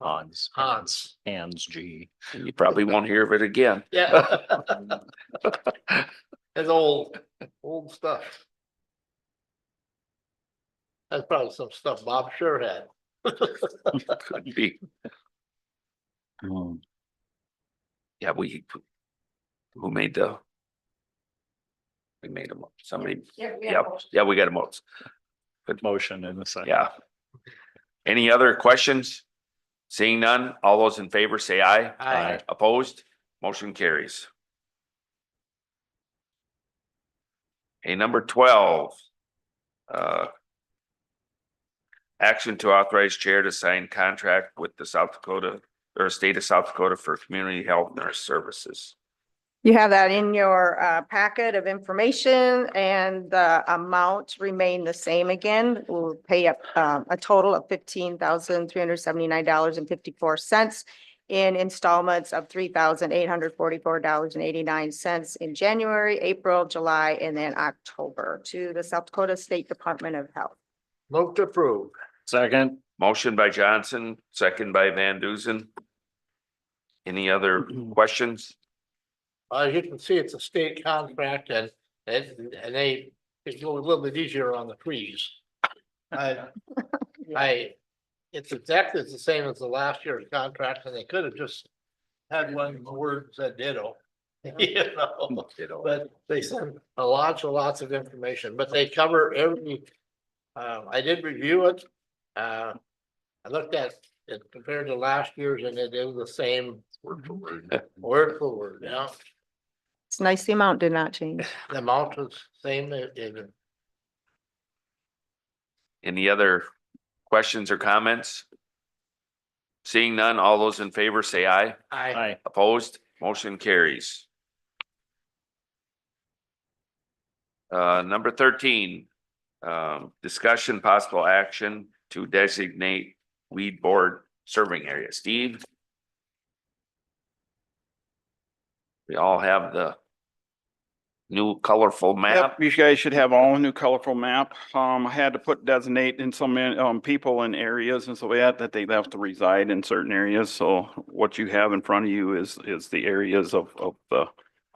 Hans. Hans. Hans G. You probably won't hear of it again. Yeah. That's old, old stuff. That's probably some stuff Bob sure had. Could be. Um, Yeah, we. Who made the? We made them, somebody, yeah, yeah, we got a motion. Motion in a second. Yeah. Any other questions? Seeing none, all those in favor say aye. Aye. Opposed, motion carries. Okay, number twelve. Uh. Action to authorize chair to sign contract with the South Dakota or state of South Dakota for community health nurse services. You have that in your uh, packet of information and the amounts remain the same again. We'll pay up um, a total of fifteen thousand three hundred seventy-nine dollars and fifty-four cents in installments of three thousand eight hundred forty-four dollars and eighty-nine cents in January, April, July, and then October to the South Dakota State Department of Health. Move to approve. Second, Motion by Johnson, second by Van Duzen. Any other questions? As you can see, it's a state contract and, and, and they, it's a little bit easier on the trees. I, I, it's exactly the same as the last year's contract and they could have just had one word said ditto. You know, but they send a lots and lots of information, but they cover every, um, I did review it. Uh, I looked at it compared to last year's and it is the same word for word, yeah. It's nice the amount did not change. The amount is same, it, it, Any other questions or comments? Seeing none, all those in favor say aye. I, aye. Opposed, motion carries. Uh, number thirteen, um, discussion possible action to designate weed board serving area. Steve? We all have the new colorful map. Yep, you guys should have all new colorful map. Um, I had to put designate in some, um, people in areas and so that, that they have to reside in certain areas. So what you have in front of you is, is the areas of, of the,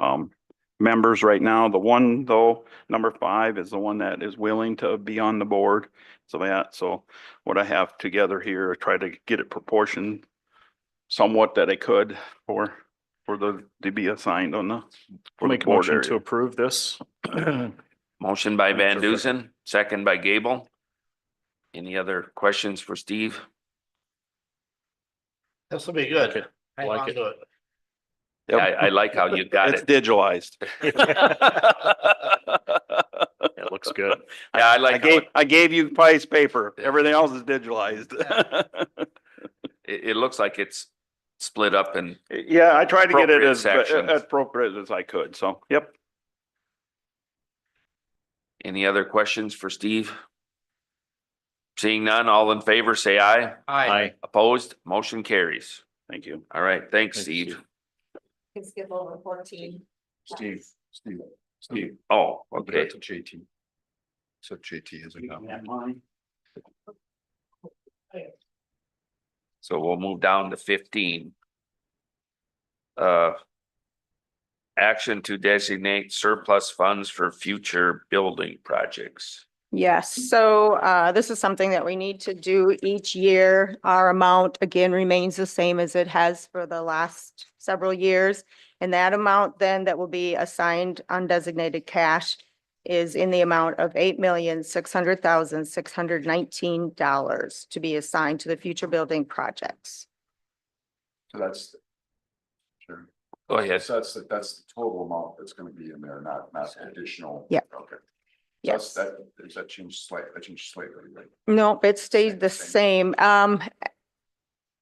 um, members right now. The one though, number five is the one that is willing to be on the board. So that, so what I have together here, I try to get it proportioned somewhat that I could for, for the, to be assigned on the. for the Make a board motion area. to approve this. Motion by That's Van okay. Dusen, second by Gable. Any other questions for Steve? this will be good. Hang Like on it. to it. I, I like how you got It's it. digitalized. It looks good. Yeah, I I like, how gave, it, I gave you price paper. Everything else is digitalized. it it looks like it's split up and Yeah, I tried to get it Appropriate as uh, sections. appropriate appropriate as I could. So, yep. any other questions for Steve? Seeing none, all in favor, say aye. I, Aye. Opposed, motion carries. Thank you. All right, thanks, Thanks, Steve. skip over fourteen. Steve, Steve, Steve, Oh, I'll give that okay. to JT. So JT is a comment. So we'll move down to fifteen. Uh. Action to designate surplus funds for future building projects. Yes, so uh, this is something that we need to do each year. Our amount again remains the same as it has for the last several years. And that amount then that will be assigned undesignated cash is in the amount of eight million, six hundred thousand, six hundred nineteen dollars to be assigned to the future building projects. So that's. Sure. Go ahead. So that's, the- that's the total amount that's gonna be in there, not, not additional. Yeah. Okay. So that's- Yes. That, is that changed slightly, that changed slightly, right? Nope, it stayed the same. Um,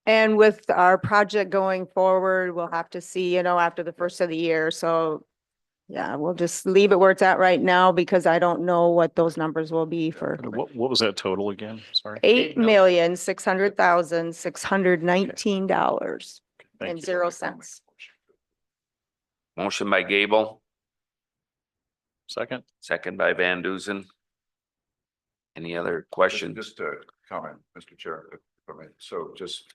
and with our project going forward, we'll have to see, you know, after the first of the year, so yeah, we'll just leave it where it's at right now because I don't know what those numbers will be for What, what was that total again? Sorry. eight mil- million, six hundred thousand, six hundred nineteen dollars Thank and you. zero cents. Motion by Gable, Second, second by Van Dusen. Any other Just- questions? Just a comment, Mr. Chair, if I may. so just